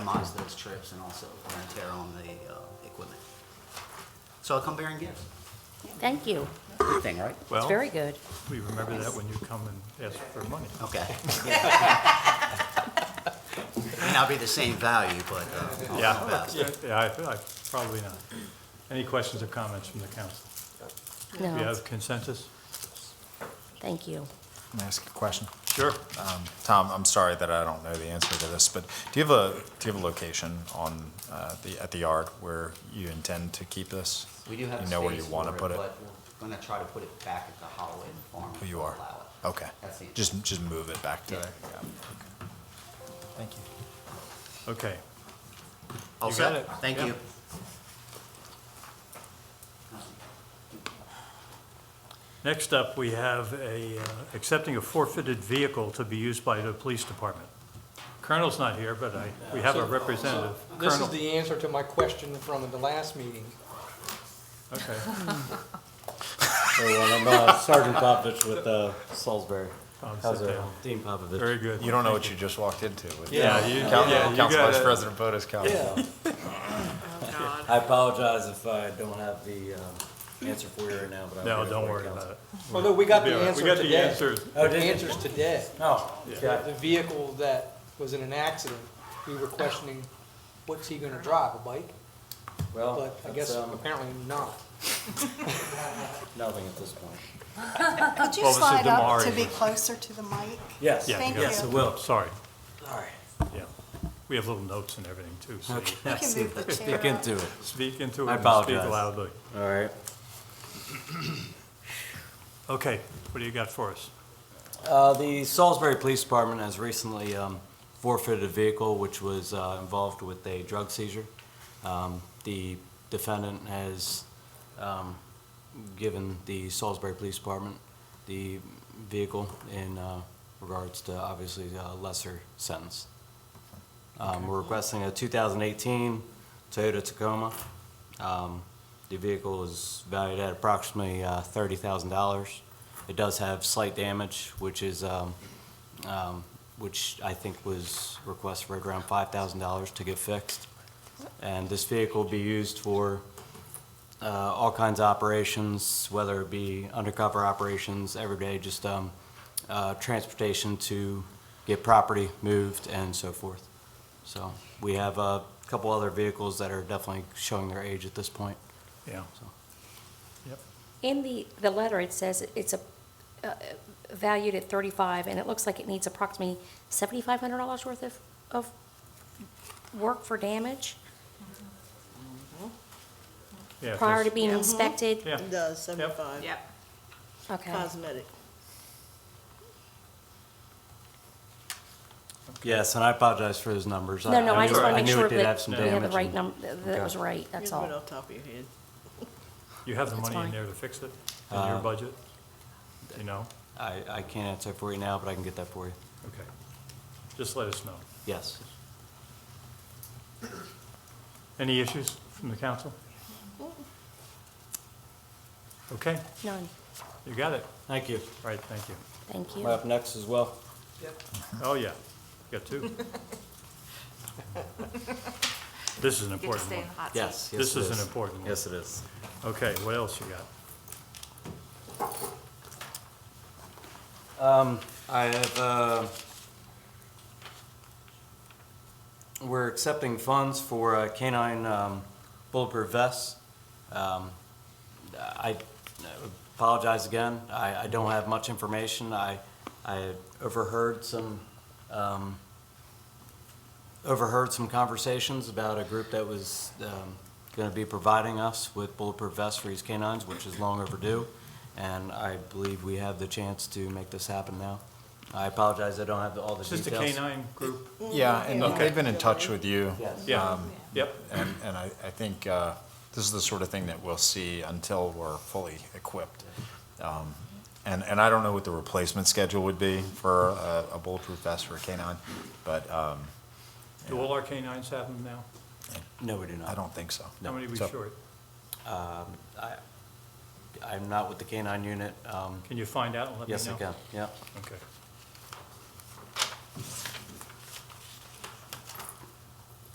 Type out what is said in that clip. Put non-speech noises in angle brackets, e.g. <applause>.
minimize those trips and also wear and tear on the uh, equipment. So I come bearing gifts. Thank you. Good thing, right? It's Well, very good. we remember that when you come and ask for money. Okay. May not be the same value, but uh, I'll do my best. Yeah, Oh, yeah, I feel like, probably not. Any questions or comments from the council? Do you No, have consensus? thank you. Can I ask a question? Sure. Um, Tom, I'm sorry that I don't know the answer to this, but do you have a, do you have a location on, uh, the, at the yard where you intend to keep this? We do have You space know where you want to for put it, it? but we're going to try to put it back at the Holloway Farm. Who you if we are? allow it. Okay. That's the- Just, just move it back to Yeah. there. Yeah. Okay. Thank you. Okay. All You set? got it. Thank Yeah. you. Next up, we have a, uh, accepting a forfeited vehicle to be used by the police department. Colonel's not here, but I, we have a representative. This Colonel- is the answer to my question from the last meeting. Okay. So well, I'm uh, Sergeant Popovich with uh, Salisbury. Oh, sit How's it? down. Dean Popovich. Very good. <laughs> You don't know what you just walked into with Yeah, you, Coun- yeah, you Council Vice got President Boda's comment. <laughs> Yeah. Oh, I apologize if I don't have the um, answer for you right now, but I. No, don't worry about it. Well, no, we got We'll be the all right. answer We got the today. answer. Oh, The did you? answer's today. Oh, okay. The vehicle that was in an accident, we were questioning, what's he gonna drive, a bike? Well, But I guess that's, um, apparently not. nothing at this point. Could you Well, this is slide up to Damari. be closer to the mic? Yes. Yeah, Thank you got Yes, you. it will. Oh, Sorry, All right. yeah. We have little notes and everything too, so <laughs> you You can move the chair Stick up. into it. speak into it I and speak apologize. loudly. All right. Okay, what do you got for us? Uh, The Salisbury Police Department has recently um, forfeited a vehicle which was uh, involved with a drug seizure. Um, The defendant has um, given the Salisbury Police Department the vehicle in uh, regards to obviously a lesser sentence. Um, We're requesting a 2018 Toyota Tacoma. Um, The vehicle is valued at approximately uh, $30,000. It does have slight damage, which is, um, um, which I think was requested for around $5,000 to get fixed. And this vehicle will be used for uh, all kinds of operations, whether it be undercover operations, everyday, just um, uh, transportation to get property moved and so forth. So we have a couple other vehicles that are definitely showing their age at this point. Yeah. In the, the letter, it says it's a, uh, valued at 35, and it looks like it needs approximately $7,500 worth of, of work for damage Yeah, prior to that's- being inspected. Yeah, Does seventy-five, Yep. Okay. cosmetic. Yes, and I apologize for those numbers. No, no, I just knew- want to make knew sure it did have that some we have the damage right and- number, that it Okay. was right, that's Just right all. off the top of your head. you have the That's money in fine. there to fix it, in your Uh, budget? You know? I, I can't answer for you now, but I can get that for you. Okay. Just let us know. Yes. Any issues from the council? Okay, None, you got it. Thank you. All right, thank you. thank Am you. I up next as well? Oh, yeah, you got two. This is an Get to important stay in one. the hot seat. Yes. yes, This it is an important one. Yes, it is. Okay, what else you got? I have, uh, we're accepting funds for uh, canine um, bulletproof vests. Um, I apologize again, I, I don't have much information. I, I overheard some, um, overheard some conversations about a group that was um, going to be providing us with bulletproof vests for these canines, which is long overdue, and I believe we have the chance to make this happen now. I apologize, I don't have all the It's Just details. a canine group? Yeah, and they've been in touch with you. Yes. Yeah, Um, yep. And, and I, I think uh, this is the sort of thing that we'll see until we're fully equipped. Um, And, and I don't know what the replacement schedule would be for a a bulletproof vest for a canine, but um, Do all our canines have them now? No, we do not. I don't think so. How many are we So- short? I, I'm not with the canine unit. Um, Can you find out and let me know? yes, I can, yeah. Okay.